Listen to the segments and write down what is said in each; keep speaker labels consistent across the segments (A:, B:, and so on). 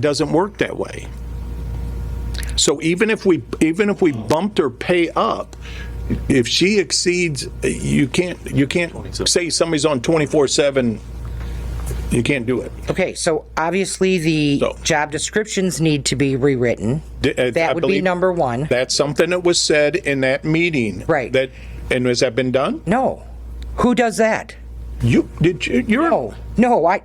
A: doesn't work that way. So even if we, even if we bumped her pay up, if she exceeds, you can't, you can't say somebody's on 24/7, you can't do it.
B: Okay, so obviously the
A: So-
B: job descriptions need to be rewritten.
A: D- uh, I
B: That would be
A: believe-
B: number one.
A: That's something that was said in that meeting.
B: Right.
A: That, and has that been done?
B: No. Who does that?
A: You, did you, you're,
B: No, no, I,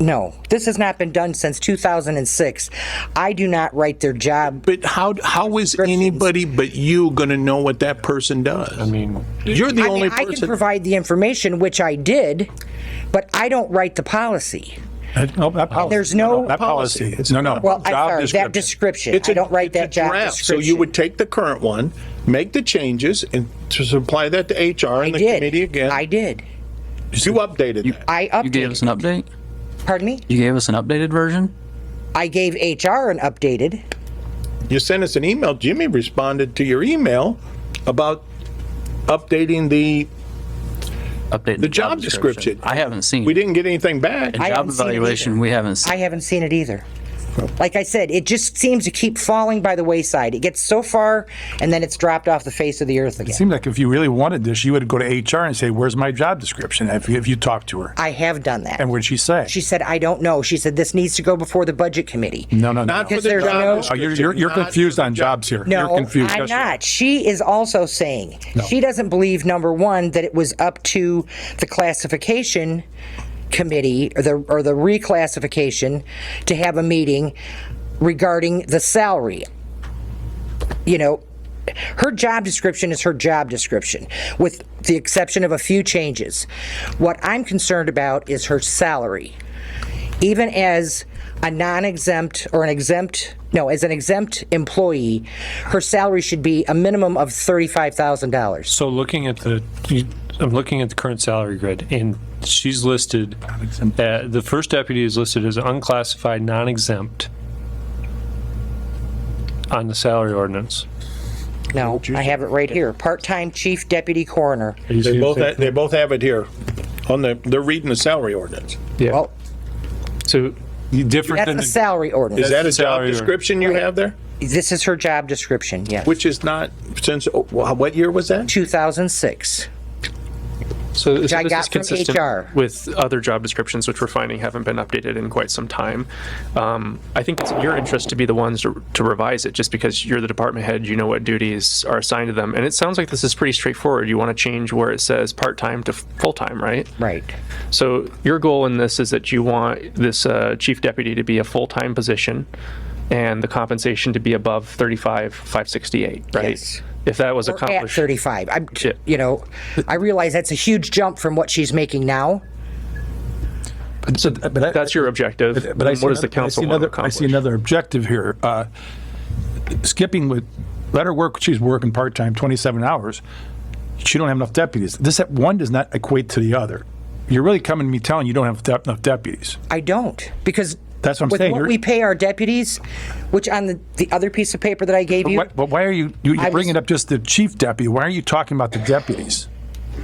B: no. This has not been done since 2006. I do not write their job.
A: but how, how is anybody but you gonna know what that person does? I mean. You're the
B: I mean,
A: only
B: I can
A: person.
B: provide the information, which I did, but I don't write the policy.
C: No, not policy.
B: Uh, there's no-
C: Not policy. No, no.
B: Well, I'm
C: Job
B: sorry, that
C: description.
B: description.
A: It's
B: I
A: a-
B: don't write
A: it's a
B: that job
A: draft.
B: description.
A: So you would take the current one, make the changes, and to supply that to HR and
B: I
A: the
B: did.
A: committee again.
B: I did.
A: You updated that.
B: I
D: You gave us
B: updated.
D: an update?
B: Pardon me?
D: You gave us an updated version?
B: I gave HR an updated.
A: You sent us an email. Jimmy responded to your email about updating the,
D: Update
A: the job description.
D: I haven't seen.
A: We didn't get anything back.
D: The
B: I
D: job
B: haven't seen it either.
D: evaluation, we haven't
B: I
D: seen.
B: haven't seen it either. Like I said, it just seems to keep falling by the wayside. It gets so far and then it's dropped off the face of the earth
C: It
B: again.
C: seemed like if you really wanted this, you would go to HR and say, where's my job description? If, if you talked to her.
B: I have done that.
C: And what'd she say?
B: She said, I don't know. She said, this needs to go before the budget committee.
C: No, no, no.
A: Not for
B: Because
A: the
B: there's no-
A: job
C: Oh,
A: description.
C: You're, you're, you're
A: not for
C: confused
A: the
C: on
A: job-
C: jobs here. You're
B: No,
C: confused.
B: I'm
C: Yes, sir.
B: not. She is also saying, she doesn't believe, number one, that it was up to the classification committee or the, or the reclassification to have a meeting regarding the salary. You know, her job description is her job description, with the exception of a few changes. What I'm concerned about is her salary. Even as a non-exempt or an exempt, no, as an exempt employee, her salary should be a minimum of $35,000.
E: So looking at the, I'm looking at the current salary grid, and she's listed, uh, the first deputy is listed as unclassified, non-exempt on the salary ordinance.
B: No, I have it right here. Part-time chief deputy coroner.
A: They both, ha- they both have it here on the, they're reading the salary ordinance.
E: Yeah,
B: Well,
E: so
C: You Different
B: that's
C: than,
B: the
C: the-
B: salary
A: Is
B: ordinance.
A: that a job
E: Salary or-
A: description you have there?
B: This is her job description, yes.
A: Which is not, since, oh, wha- what year was that?
B: 2006.
F: So this
B: I
F: this
B: got
F: is
B: from HR.
F: consistent with other job descriptions, which we're finding haven't been updated in quite some time. Um, I think it's in your interest to be the ones to to revise it, just because you're the department head, you know what duties are assigned to them. And it sounds like this is pretty straightforward. You want to change where it says part-time to full-time, right?
B: Right.
F: So your goal in this is that you want this uh, chief deputy to be a full-time position and the compensation to be above 35, 568, right?
B: Yes.
F: If that was
B: Or at
F: accomplished.
B: 35. I'm,
F: Yeah.
B: you know, I realize that's a huge jump from what she's making now.
C: so- but I-
F: That's your objective.
C: but I
F: Then
C: see
F: what does
C: another-
F: the
C: I see
F: council want to
C: another- I
F: accomplish?
C: see another objective here. Uh, Skipping with, let her work, she's working part-time, 27 hours. She don't have enough deputies. This, one does not equate to the other. You're really coming to me telling you don't have dep- enough deputies.
B: I don't, because.
C: That's what I'm
B: with
C: saying.
B: what
C: You're-
B: we pay our deputies, which on the, the other piece of paper that I gave you,
C: Why- But why are you, you-
B: I
C: you're
B: was-
C: bringing up just the chief deputy, why are you talking about the deputies?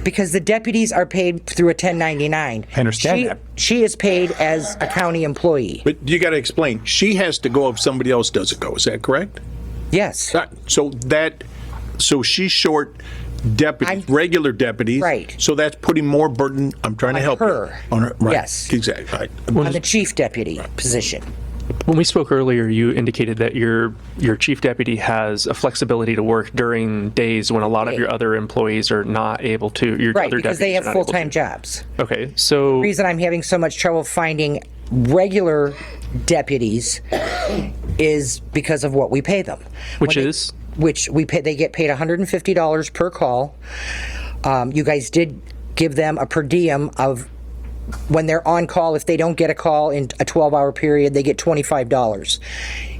B: because the deputies are paid through a 1099.
C: I understand
B: She-
C: that.
B: She is paid as a county employee.
A: But you gotta explain, she has to go if somebody else doesn't go, is that correct?
B: Yes.
A: Right. So that, so she's short deputies, regular deputies.
B: Right.
A: So that's putting more burden, I'm trying to help you.
B: her.
A: On her, right.
B: Yes.
A: Exactly, right.
B: On the chief deputy position.
F: When we spoke earlier, you indicated that your your chief deputy has a flexibility to work during days when a lot of your other employees are not able to. Your
B: Right,
F: other
B: because they have
F: deputies are not able
B: full-time
F: to.
B: jobs.
F: Okay, so
B: reason I'm having so much trouble finding regular deputies is because of what we pay them.
F: Which
B: When they-
F: is?
B: Which we pay, they get paid $150 per call. Um, you guys did give them a per diem of, when they're on call, if they don't get a call in a 12-hour period, they get $25.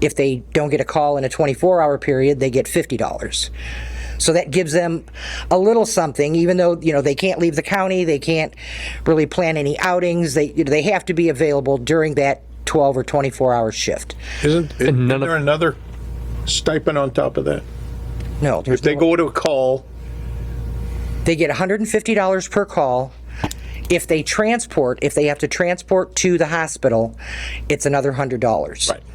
B: If they don't get a call in a 24-hour period, they get $50. So that gives them a little something, even though, you know, they can't leave the county, they can't really plan any outings, they, you know, they have to be available during that 12 or 24-hour shift.
A: Isn't, isn't
F: none of-
A: there another stipend on top of that?
B: No, there's
A: If they
B: no,
A: go to a call,
B: they get $150 per call, If they transport, if they have to transport to the hospital, it's another hundred dollars.
A: Right.